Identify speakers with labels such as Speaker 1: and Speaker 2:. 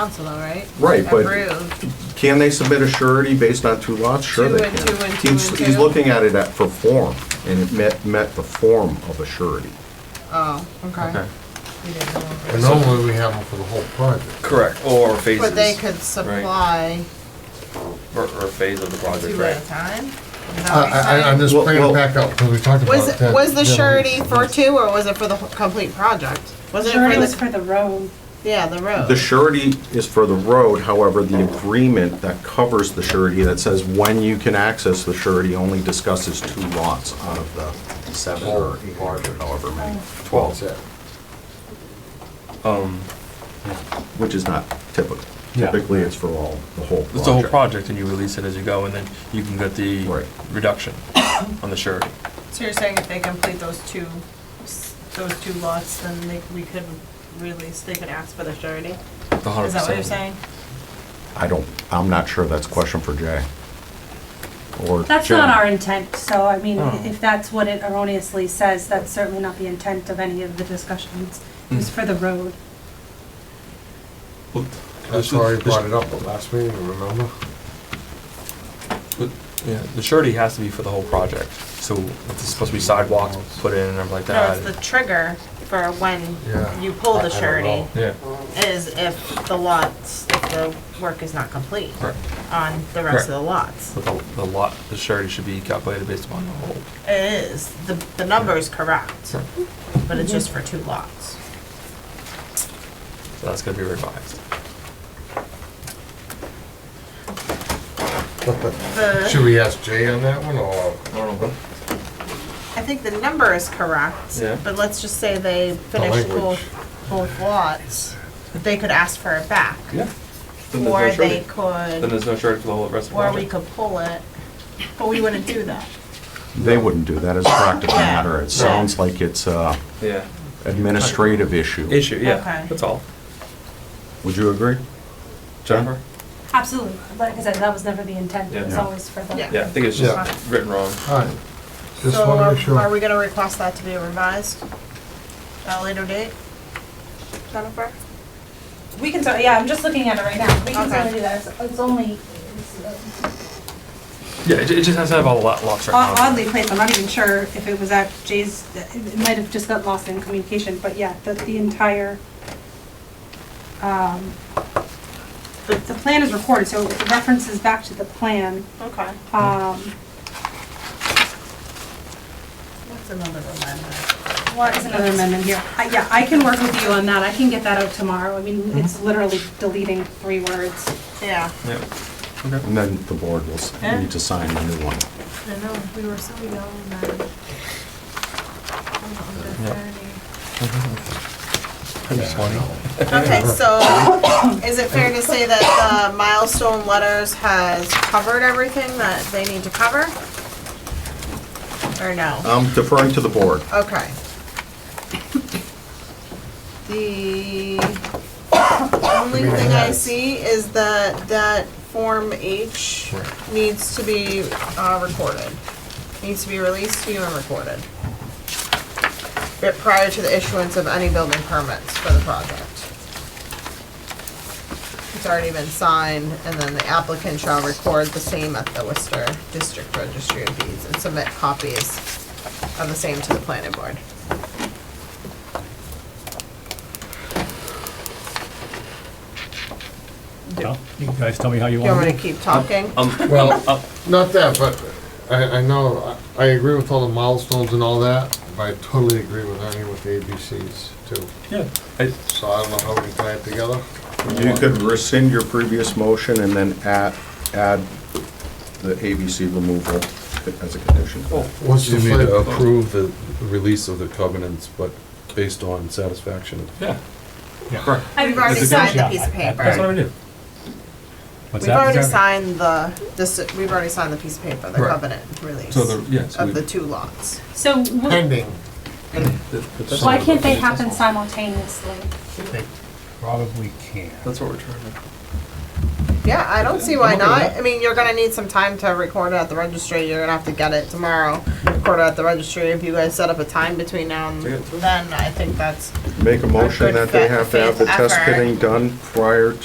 Speaker 1: council though, right?
Speaker 2: Right, but-
Speaker 1: Approved.
Speaker 2: Can they submit a surety based on two lots? Sure
Speaker 1: Two
Speaker 2: they
Speaker 1: and
Speaker 2: can.
Speaker 1: two and two
Speaker 2: He's-
Speaker 1: and
Speaker 2: He's
Speaker 1: two?
Speaker 2: looking at it at, for form, and it met, met the form of a surety.
Speaker 1: Oh, okay. We didn't know.
Speaker 3: And normally we have them for the whole project.
Speaker 4: Correct, or phases.
Speaker 1: But they could supply
Speaker 4: Or, or phase of the project,
Speaker 1: two at
Speaker 4: right?
Speaker 1: a time? Is that what
Speaker 3: I,
Speaker 1: you're
Speaker 3: I, I'm
Speaker 1: saying?
Speaker 3: just
Speaker 2: Well,
Speaker 3: bringing it
Speaker 2: well-
Speaker 3: back up, because we talked about
Speaker 1: Oh, Was,
Speaker 3: that.
Speaker 1: was the
Speaker 3: other
Speaker 1: surety
Speaker 3: week.
Speaker 1: for two or was it for the whole- complete project? Was it
Speaker 5: Surety
Speaker 1: for
Speaker 5: was
Speaker 1: the,
Speaker 5: for the road.
Speaker 1: yeah, the road?
Speaker 2: The surety is for the road, however, the agreement that covers the surety that says when you can access the surety only discusses two lots out of the seven or eight, or however many,
Speaker 3: That's
Speaker 2: twelve,
Speaker 3: it.
Speaker 4: Um,
Speaker 2: which is not typical.
Speaker 4: Yeah.
Speaker 2: Typically, it's for all, the whole project.
Speaker 4: it's the whole project and you release it as you go and then you can get the
Speaker 2: Right.
Speaker 4: reduction on the surety.
Speaker 1: So you're saying if they complete those two, s- those two lots, then they, we could release, they could ask for the surety?
Speaker 4: The
Speaker 1: Is
Speaker 4: hundred percent.
Speaker 1: that what you're saying?
Speaker 2: I don't, I'm not sure that's a question for Jay. Or
Speaker 5: That's
Speaker 2: Jim.
Speaker 5: not our intent, so I mean,
Speaker 4: Oh.
Speaker 5: if that's what it erroneously says, that's certainly not the intent of any of the discussions. It was for the road.
Speaker 6: Well,
Speaker 3: That's
Speaker 6: this-
Speaker 3: why we
Speaker 6: this-
Speaker 3: brought it up at last meeting, remember?
Speaker 4: But, Yeah, the surety has to be for the whole project, so if it's supposed to be sidewalks put in and everything like
Speaker 1: No,
Speaker 4: that.
Speaker 1: it's the trigger for
Speaker 3: Yeah.
Speaker 1: when you pull
Speaker 3: I- I
Speaker 1: the
Speaker 3: don't
Speaker 1: surety
Speaker 3: know.
Speaker 4: Yeah,
Speaker 1: is if the lots, if the work is not complete
Speaker 4: correct.
Speaker 1: on the rest
Speaker 4: Correct.
Speaker 1: of the lots.
Speaker 4: But the, the lot, the surety should be calculated based upon the whole.
Speaker 1: It is, the, the number is correct,
Speaker 4: So
Speaker 1: but it's just for two lots.
Speaker 4: that's gonna be revised.
Speaker 1: The,
Speaker 3: Should we ask Jay on that one, or?
Speaker 1: I think the number is correct,
Speaker 4: Yeah.
Speaker 1: but let's just say they finish
Speaker 3: language.
Speaker 1: both, both lots. They could ask for it back.
Speaker 4: Yeah. Then there's no
Speaker 1: Or they
Speaker 4: surety. Then
Speaker 1: could,
Speaker 4: there's no surety for the whole rest of the
Speaker 1: or we
Speaker 4: project.
Speaker 1: could pull it, but we wouldn't do that.
Speaker 2: They wouldn't do that as a practical matter. It sounds like it's a
Speaker 4: Yeah.
Speaker 2: administrative issue.
Speaker 4: Issue,
Speaker 1: Okay.
Speaker 4: yeah, that's all.
Speaker 2: Would you agree?
Speaker 4: Jennifer?
Speaker 5: Absolutely. Like I said, that was never the intent. It was
Speaker 4: Yeah.
Speaker 5: always for the.
Speaker 1: Yeah.
Speaker 4: Yeah, I think it's
Speaker 1: Yeah.
Speaker 4: just written wrong.
Speaker 3: All right. Just
Speaker 1: So
Speaker 3: want to make
Speaker 1: are- are
Speaker 3: sure.
Speaker 1: we gonna request that to be revised at a later date? Jennifer?
Speaker 5: We can, cer- yeah, I'm just looking at it right now. We can
Speaker 1: Okay.
Speaker 5: certainly do that. It's- It's only it's, uh,
Speaker 4: Yeah, it, it just has to have all the lot, lots right
Speaker 5: Odd-
Speaker 4: now.
Speaker 5: Oddly placed, I'm not even sure if it was at Jay's, it might have just got lost in communication, but yeah, the, the entire, um, the, the plan is recorded, so it references back to the plan.
Speaker 1: Okay.
Speaker 5: Um,
Speaker 1: What's another amendment?
Speaker 5: what is another amendment here? I- Yeah, I can work with you on that, I can get that out tomorrow, I mean, it's literally deleting three words.
Speaker 1: Yeah.
Speaker 4: Yeah.
Speaker 2: And then the board will s- need to sign the new one.
Speaker 1: I know, we were so young then. Okay, so is it fair to say that the milestone letters has covered everything that they need to cover? Or no?
Speaker 2: I'm deferring to the board.
Speaker 1: Okay. The only thing I see is that that Form H needs to be uh, recorded. Needs to be released to you and recorded. But Prior to the issuance of any building permits for the project. It's already been signed, and then the applicant shall record the same at the Worcester District Registry of Deeds and submit copies on the same to the planning board.
Speaker 7: Well, You guys tell me how you
Speaker 1: Do you want me
Speaker 7: want to
Speaker 1: to
Speaker 7: do it.
Speaker 1: keep talking?
Speaker 3: Well, not that, but I, I know, I I agree with all the milestones and all that, but I totally agree with Ernie with the ABCs too.
Speaker 4: Yeah. I,
Speaker 3: So I don't know how we can tie it together.
Speaker 2: You could rescind your previous motion and then add, add the ABC removal as a condition.
Speaker 1: Oh.
Speaker 3: What's
Speaker 6: You
Speaker 3: the
Speaker 6: need to
Speaker 3: flavor?
Speaker 6: approve the release of the covenants, but based on satisfaction.
Speaker 4: yeah,
Speaker 7: Yeah.
Speaker 1: We've already
Speaker 7: It's a
Speaker 1: signed the
Speaker 7: good
Speaker 1: piece of
Speaker 7: shot. I- I-
Speaker 4: that's
Speaker 1: paper.
Speaker 4: what I do.
Speaker 7: What's
Speaker 1: We've
Speaker 7: that?
Speaker 1: already
Speaker 7: Exactly.
Speaker 1: signed the, this, we've already signed the piece of paper, the
Speaker 4: Right.
Speaker 1: covenant release
Speaker 4: So the,
Speaker 1: of
Speaker 4: yeah, so we,
Speaker 1: the two lots.
Speaker 5: So,
Speaker 3: Pending.
Speaker 5: why can't they happen simultaneously?
Speaker 7: They Probably can.
Speaker 4: that's what we're trying to.
Speaker 1: Yeah, I don't see why
Speaker 4: I'm okay with
Speaker 1: not.
Speaker 4: that.
Speaker 1: I mean, you're gonna need some time to record it at the registry. You're gonna have to get it tomorrow. Record it at the registry. If you guys set up a time between now and
Speaker 4: Yeah.
Speaker 1: then, I think that's
Speaker 2: Make a motion
Speaker 1: good
Speaker 2: that they
Speaker 1: fa-
Speaker 2: have to have the
Speaker 1: faith
Speaker 2: test
Speaker 1: effort.
Speaker 2: pitting done prior